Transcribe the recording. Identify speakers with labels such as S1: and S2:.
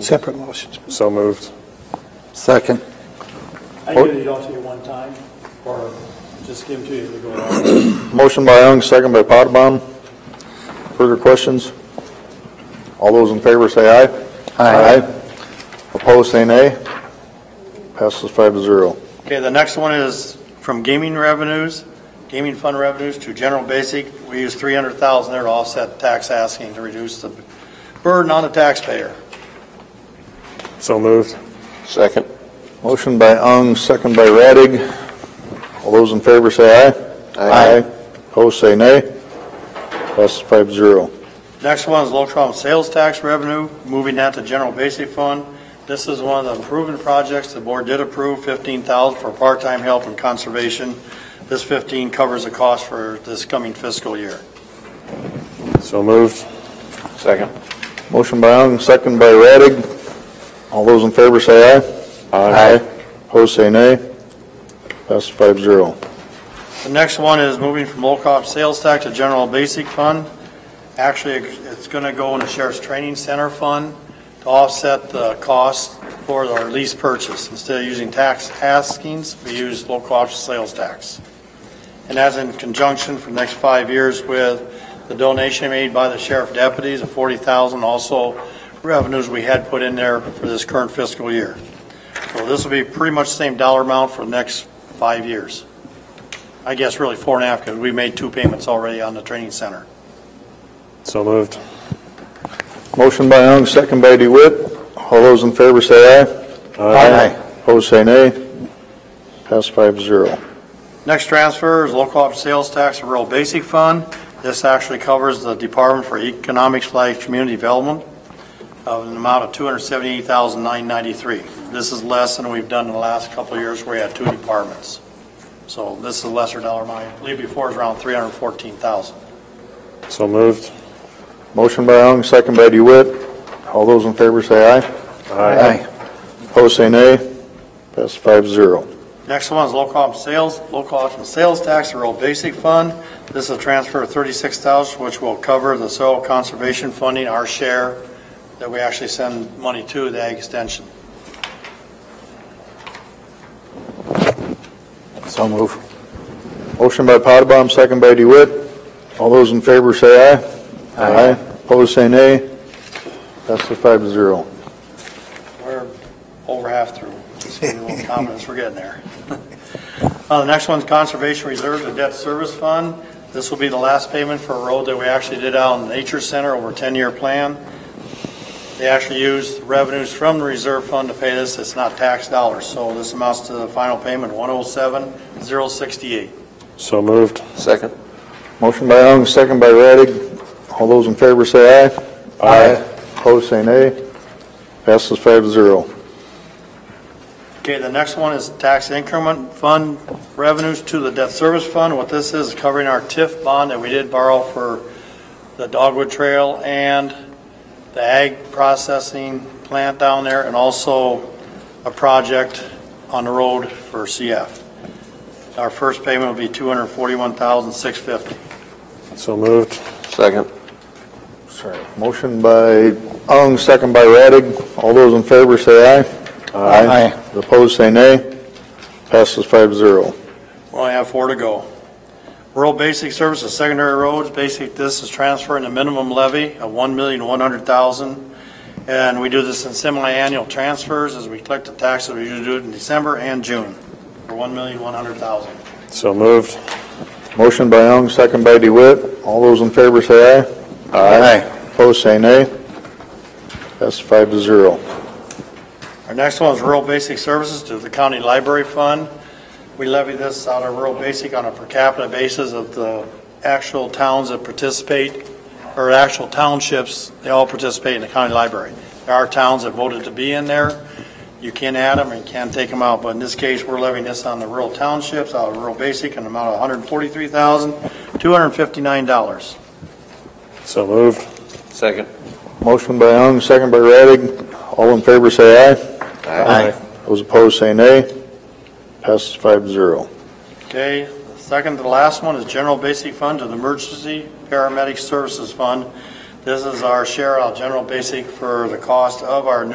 S1: Separate motions.
S2: So moved.
S3: Second.
S4: I give these all to you one time, or just give them to you as we go along.
S3: Motion by Young, second by Potabom. Further questions? All those in favor say aye. Aye. Opposed, say nay. Passes five to zero.
S4: Okay, the next one is from gaming revenues, gaming fund revenues to general basic. We use three hundred thousand there to offset tax asking to reduce the burden on the taxpayer.
S2: So moved.
S3: Second. Motion by Ung, second by Radig. All those in favor say aye. Aye. Opposed, say nay. Passes five to zero.
S4: Next one is Lotrom sales tax revenue, moving that to general basic fund. This is one of the improvement projects. The board did approve fifteen thousand for part-time help and conservation. This fifteen covers the cost for this coming fiscal year.
S2: So moved.
S5: Second.
S3: Motion by Ung, second by Radig. All those in favor say aye. Aye. Opposed, say nay. Passes five to zero.
S4: The next one is moving from low cost sales tax to general basic fund. Actually, it's going to go in the sheriff's training center fund to offset the cost for our lease purchase. Instead of using tax askings, we use low cost sales tax. And that's in conjunction for the next five years with the donation made by the sheriff deputies of forty thousand, also revenues we had put in there for this current fiscal year. So this will be pretty much the same dollar amount for the next five years. I guess really four and a half, because we made two payments already on the training center.
S2: So moved.
S3: Motion by Young, second by DeWitt. All those in favor say aye. Opposed, say nay. Pass five zero.
S4: Next transfer is local option sales tax and rural basic fund. This actually covers the Department for Economic slash Community Development of an amount of two hundred seventy-eight thousand nine ninety-three. This is less than we've done in the last couple of years where we had two departments. So this is a lesser dollar amount. I believe before it was around three hundred fourteen thousand.
S2: So moved.
S3: Motion by Young, second by DeWitt. All those in favor say aye. Opposed, say nay. Pass five zero.
S4: Next one is local option sales, local option sales tax, rural basic fund. This is a transfer of thirty-six thousand, which will cover the soil conservation funding, our share, that we actually send money to the ag extension.
S3: So move. Motion by Potabom, second by DeWitt. All those in favor say aye. Aye. Opposed, say nay. Passes five to zero.
S4: We're over half through. Just give me a little confidence, we're getting there. Uh, the next one's conservation reserve, the debt service fund. This will be the last payment for a road that we actually did out in Nature Center over a ten-year plan. They actually used revenues from the reserve fund to pay this. It's not tax dollars, so this amounts to the final payment, one oh seven, zero sixty-eight.
S2: So moved.
S5: Second.
S3: Motion by Young, second by Radig. All those in favor say aye.
S2: Aye.
S3: Opposed, say nay. Passes five to zero.
S4: Okay, the next one is tax increment fund revenues to the debt service fund. What this is covering our TIF bond that we did borrow for the Dogwood Trail and the ag processing plant down there and also a project on the road for CF. Our first payment will be two hundred forty-one thousand, six fifty.
S2: So moved.
S5: Second.
S3: Sorry. Motion by Ung, second by Radig. All those in favor say aye. Aye. Opposed, say nay. Passes five to zero.
S4: We only have four to go. Rural Basic Services, Secondary Roads, basic, this is transferring the minimum levy of one million, one hundred thousand. And we do this in semi-annual transfers as we collect the taxes. We usually do it in December and June for one million, one hundred thousand.
S2: So moved.
S3: Motion by Ung, second by DeWitt. All those in favor say aye. Aye. Opposed, say nay. Passes five to zero.
S4: Our next one is Rural Basic Services to the County Library Fund. We levy this out of Rural Basic on a per capita basis of the actual towns that participate, or actual townships, they all participate in the county library. There are towns that voted to be in there. You can add them and can take them out, but in this case, we're levying this on the rural townships, out of Rural Basic, an amount of $143,259.
S2: So moved.
S5: Second.
S3: Motion by Young, second by Radig. All in favor say aye.
S5: Aye.
S3: Those opposed say nay. Passes five to zero.
S4: Okay, the second to the last one is general basic fund to the emergency paramedic services fund. This is our share of general basic for the cost of our new.